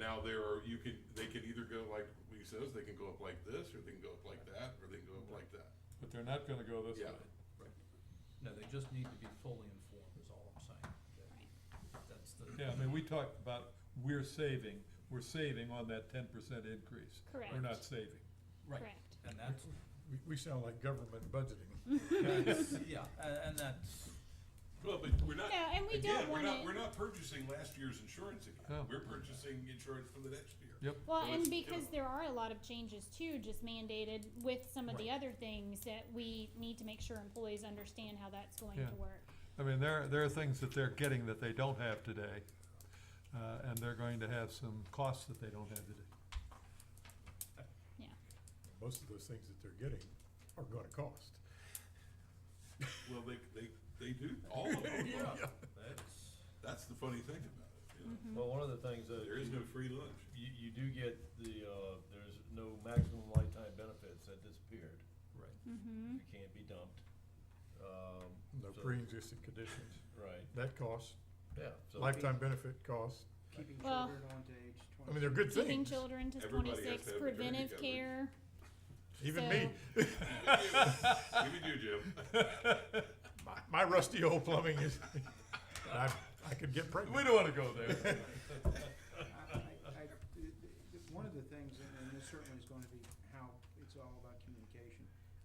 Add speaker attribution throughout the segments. Speaker 1: now there are, you could, they could either go like he says, they can go up like this, or they can go up like that, or they can go up like that.
Speaker 2: But they're not gonna go this way.
Speaker 1: Yeah.
Speaker 3: No, they just need to be fully informed, is all I'm saying. That's the.
Speaker 2: Yeah, I mean, we talked about, we're saving, we're saving on that ten percent increase.
Speaker 4: Correct.
Speaker 2: We're not saving.
Speaker 3: Right,
Speaker 4: Correct.
Speaker 3: and that's,
Speaker 5: We, we sound like government budgeting.
Speaker 3: that's, yeah, and, and that's,
Speaker 1: Well, but we're not,
Speaker 4: No, and we
Speaker 1: again,
Speaker 4: don't
Speaker 1: we're
Speaker 4: want
Speaker 1: not, we're
Speaker 4: to,
Speaker 1: not purchasing last year's insurance again.
Speaker 2: No.
Speaker 1: We're purchasing insurance for the next year.
Speaker 2: Yep.
Speaker 4: well,
Speaker 1: so
Speaker 4: and
Speaker 1: it's
Speaker 4: because
Speaker 1: different.
Speaker 4: there are a lot of changes too, just mandated with some of the
Speaker 3: Right.
Speaker 4: other things that we need to make sure employees understand how that's going
Speaker 2: Yeah.
Speaker 4: to work.
Speaker 2: I mean, there, there are things that they're getting that they don't have today, uh, and they're going to have some costs that they don't have today.
Speaker 5: Most of those things that they're getting are gonna cost.
Speaker 1: Well, they, they, they do, all of them.
Speaker 3: yeah, that's.
Speaker 1: That's the funny thing about it, you know?
Speaker 4: Mm. Mm-hmm.
Speaker 6: Well, one of the things that
Speaker 1: There is no
Speaker 6: you,
Speaker 1: free lunch.
Speaker 6: you, you do get the, uh, there's no maximum lifetime benefits that disappeared.
Speaker 3: Right.
Speaker 4: Mm-hmm.
Speaker 6: You can't be dumped. Um,
Speaker 5: No
Speaker 6: so-
Speaker 5: pre-existing conditions.
Speaker 6: Right,
Speaker 5: That costs,
Speaker 6: yeah. so-
Speaker 5: lifetime benefit costs.
Speaker 7: Keeping
Speaker 4: Well-
Speaker 7: children on to age twenty.
Speaker 5: I mean, they're good
Speaker 4: Keeping
Speaker 5: things.
Speaker 4: children to
Speaker 1: Everybody has to
Speaker 4: twenty-six,
Speaker 1: have maternity
Speaker 4: preventive
Speaker 1: coverage.
Speaker 4: care.
Speaker 5: Even me,
Speaker 1: Give it to you, Jim.
Speaker 5: my, my rusty old plumbing is, I, I could get pregnant.
Speaker 2: We don't wanna go there.
Speaker 7: I- I- I- th- th- One of the things, and and this certainly is gonna be how, it's all about communication.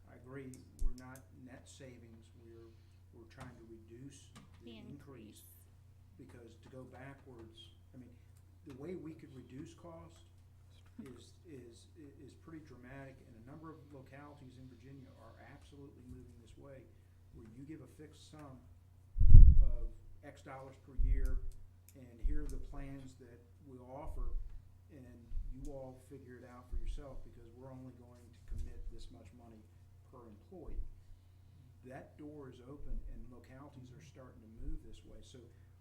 Speaker 7: I agree, we're not net savings, we're, we're trying to reduce the
Speaker 4: The
Speaker 7: increase. Because to go backwards, I mean, the way we could reduce cost is, is, i- is pretty dramatic. And a number of localities in Virginia are absolutely moving this way, where you give a fixed sum of X dollars per year, and here are the plans that we offer, and you all figure it out for yourself, because we're only going to commit this much money per employee. That door is open, and localities are starting to move this way, so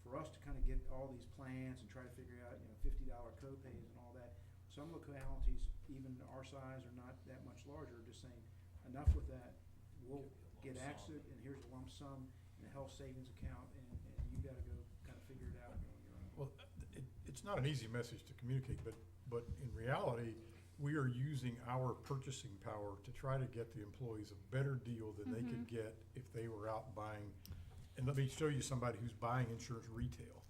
Speaker 7: for us to kind of get all these plans and try to figure out, you know, fifty dollar copays and all that, some localities, even our size or not that much larger, are just saying, enough with that, we'll get access, and here's a lump sum, in a health savings account, and, and you gotta go kind of figure it out on your own.
Speaker 5: Well, it, it's not an easy message to communicate, but, but in reality, we are using our purchasing power to try to get the employees a better deal than they could get if they were out buying. And let me show you somebody who's buying insurance retail.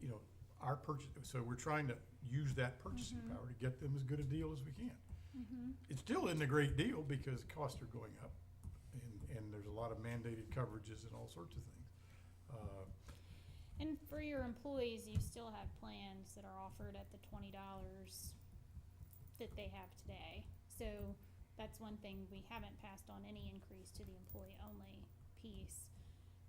Speaker 5: You know, our purchase, so we're trying to use that purchasing power to get them as good a deal as we can.
Speaker 4: Mm-hmm.
Speaker 5: It still isn't a great deal because costs are going up and, and there's a lot of mandated coverages and all sorts of things. Uh,
Speaker 4: And for your employees, you still have plans that are offered at the twenty dollars that they have today. So that's one thing we haven't passed on any increase to the employee only piece.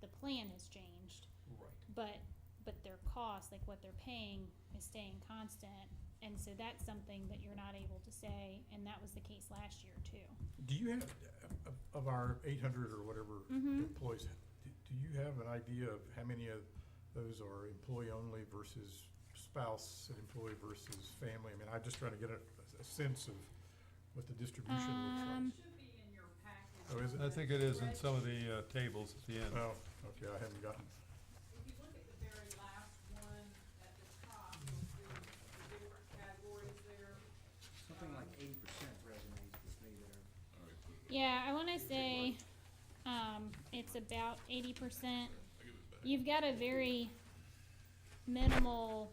Speaker 4: The plan has changed,
Speaker 3: Right.
Speaker 4: but, but their cost, like what they're paying, is staying constant. And so that's something that you're not able to say, and that was the case last year too.
Speaker 5: Do you have, of- of our eight hundred or whatever
Speaker 4: Mhm.
Speaker 5: employees, do do you have an idea of how many of those are employee-only versus spouse and employee versus family? I mean, I'm just trying to get a, a sense of what the distribution
Speaker 4: Um,
Speaker 5: looks
Speaker 8: Should be in your package.
Speaker 5: like. Oh, is it?
Speaker 2: I think it is in some of the, uh, tables at the end.
Speaker 5: Oh, okay, I haven't gotten,
Speaker 8: If you look at the very last one at the top, you'll see the different categories there.
Speaker 7: Something like
Speaker 4: Um,
Speaker 7: eighty percent resonates with me there.
Speaker 1: All right,
Speaker 4: Yeah, I wanna say, um, it's about eighty percent.
Speaker 1: I give it back.
Speaker 4: You've got a very minimal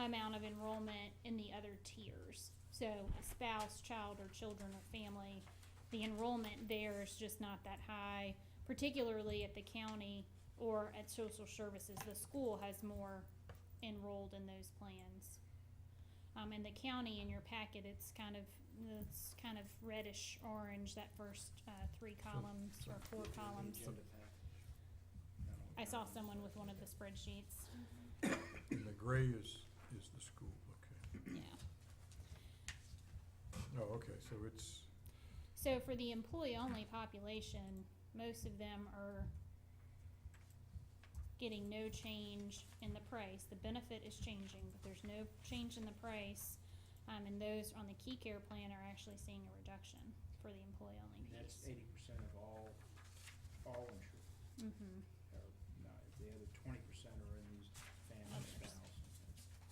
Speaker 4: amount of enrollment in the other tiers. So a spouse, child, or children or family, the enrollment there is just not that high, particularly at the county or at social services. The school has more enrolled in those plans. Um, in the county, in your packet, it's kind of, it's kind of reddish orange, that first, uh, three columns or four columns.
Speaker 7: Agenda package.
Speaker 4: I saw someone with one of the spreadsheets.
Speaker 5: and the gray is, is the school, okay.
Speaker 4: Yeah.
Speaker 5: Oh, okay, so it's,
Speaker 4: So for the employee-only population, most of them are getting no change in the price. The benefit is changing, but there's no change in the price. Um, and those on the key care plan are actually seeing a reduction for the employee-only
Speaker 7: That's
Speaker 4: piece.
Speaker 7: eighty percent of all, all insurance.
Speaker 4: Mm-hmm.